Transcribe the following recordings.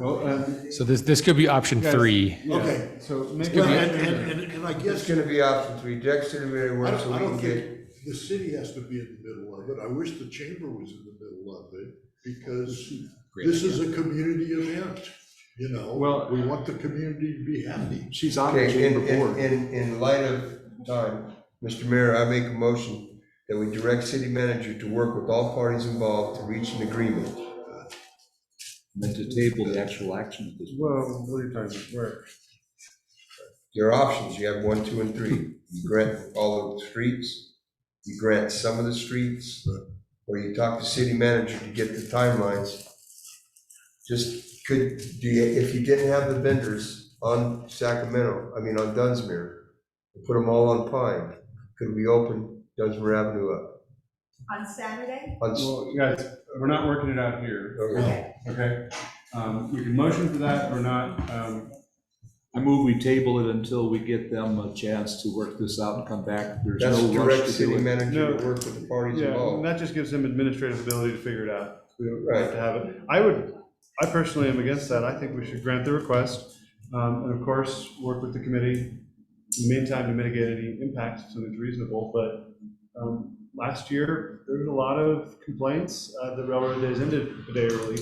Well, um, So this, this could be option Guys. three. yeah, Okay. So maybe, Well, and, and, and- and I It's guess, I gonna be option three, Dex and Mary Ward, don't, so we I can don't get, think the city has to be in the middle of it. I wish the chamber was in the middle of it, because this is a community event, you know? Well- We want the community to be happy. She's on the okay, in, chamber in, board. in, in light of time, Mr. Mayor, I make a motion that we direct city manager to work with all parties involved to reach an agreement. meant to table the actual action at this point. well, what are you talking about? Where? There are options, you have one, two, and three. You grant all of the streets, you grant some of the streets, or you talk to city manager to get the timelines. Just could, do you, if you didn't have the vendors on Sacramento, I mean, on Dunsmere, put them all on Pine, could we open Dunsmere Avenue up? On Saturday? On s- Well, guys, we're not working it out here, okay. okay? Um, You can motion for that or not. um, I move we table it until we get them a chance to work this out and come back. There's That's no direct rush to city do it. manager No. to work with the parties Yeah, and involved. that just gives them administrative ability to figure it out. We don't have Right. to have it. I would, I personally am against that. I think we should grant the request. um, And of course, work with the committee in the meantime to mitigate any impacts so it's reasonable. But um, last year, there was a lot of complaints. Uh, The railroad days ended a day early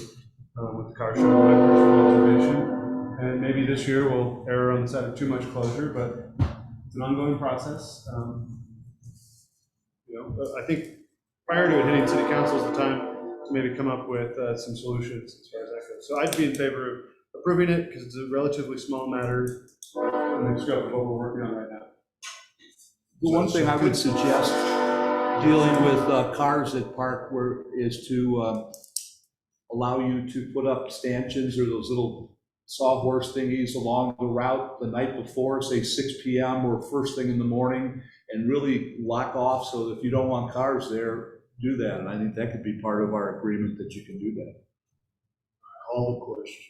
um, with the car show, my personal observation. And maybe this year we'll err on the side of too much closure, but it's an ongoing process. Um, you know, but I think prior to it hitting city council is the time to maybe come up with uh, some solutions as far as that goes. So I'd be in favor of approving it because it's a relatively small matter in the scope of what we're working on right now. The one thing I would suggest dealing with uh, cars that park where is to uh, allow you to put up stanchions or those little sawhorse thingies along the route the night before, say 6 PM or first thing in the morning, and really lock off, so if you don't want cars there, do that. And I think that could be part of our agreement that you can do that. All the questions.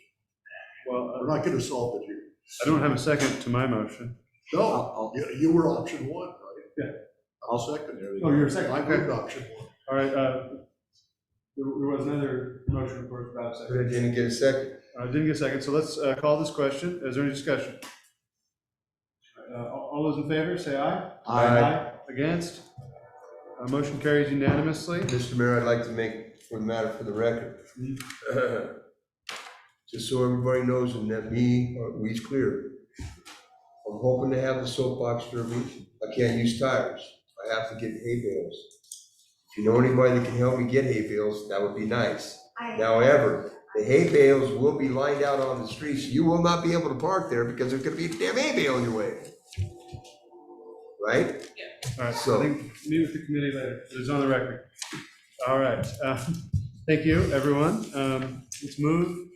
Well, uh, We're not gonna solve it here. I don't have a second to my motion. No, I'll- I'll- you, you were option one, right? Yeah. I'll second there. Oh, you're second, I okay. moved option one. All right, uh, there there was another motion, of course, without a second. But I Didn't get a second. I didn't get a second, so let's uh, call this question. Is there any discussion? Uh, All all those in favor, say aye. Aye. Against? Uh, Motion carries unanimously. Mr. Mayor, I'd like to make, for the matter, for the record, just so everybody knows and that me, or we's clear. I'm hoping to have the soapbox for a reason. I can't use tires. I have to get hay bales. If you know anybody that can help me get hay bales, that would be nice. I, However, the hay bales will be lined out on the streets. You will not be able to park there because there's gonna be a damn hay bale in your way. Right? All right, so I think, meet with the committee later, it is on the record. All right, uh, thank you, everyone. Um, Let's move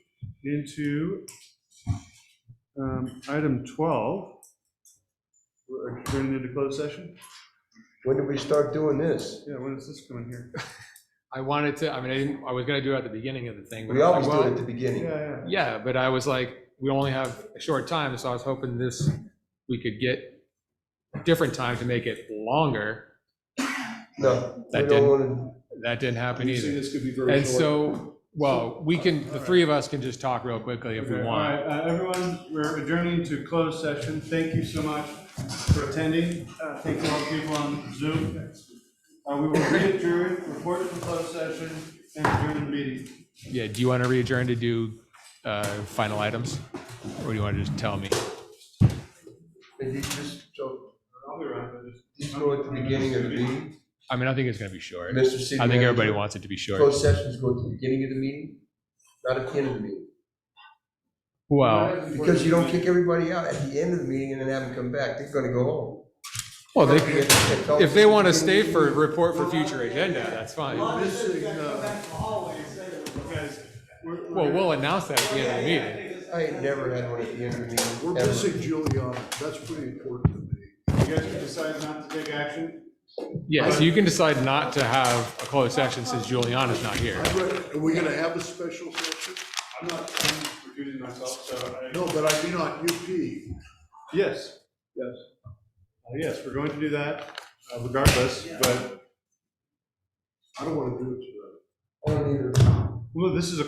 into um, item 12. We're adjourning into closed session? When did we start doing this? Yeah, when is this coming here? I wanted to, I mean, I didn't, I was gonna do it at the beginning of the thing. but We I always was like, do it well, at the beginning. Yeah, yeah. Yeah, but I was like, we only have a short time, so I was hoping this, we could get a different time to make it longer. No, we That don't didn't- wanna, That didn't happen You see, either. this could be very And short. so, well, we can, the three of us can just talk real quickly if we Okay, want. All right, uh, everyone, we're adjourning to closed session. Thank you so much for attending. Uh, Thank you all the people on Zoom. Uh, We will re-adjourn, report to the closed session, and adjourn the meeting. Yeah, do you want to adjourn to do uh, final items? Or do you want to just tell me? Did you just, so, I'll be around, but just. just go at the beginning of the meeting, I mean, I think it's going to be short. Mr. City I think everybody Manager? wants it to be short. Closed sessions go at the beginning of the meeting, not at the end of the meeting. Well, Because you don't kick everybody out at the end of the meeting and then have them come back, they're gonna go home. well, Oh, they, You can't tell if they them. want to stay for a report for future agenda, that's fine. Well, Missing, uh, we'll announce that at the end of the meeting. I ain't never had one at the end of the We're meeting, ever. missing Giuliani, that's pretty important to me. You guys can decide not to take action. Yeah, so you can decide not to have a closed session since Juliana's not here. I'd rather- Are we gonna have a special session? I'm not, I'm recusing myself, so I. No, but I mean on UP. Yes, yes. Uh, Yes, we're going to do that uh, regardless, but, I don't wanna do it today. I don't either. well, this is a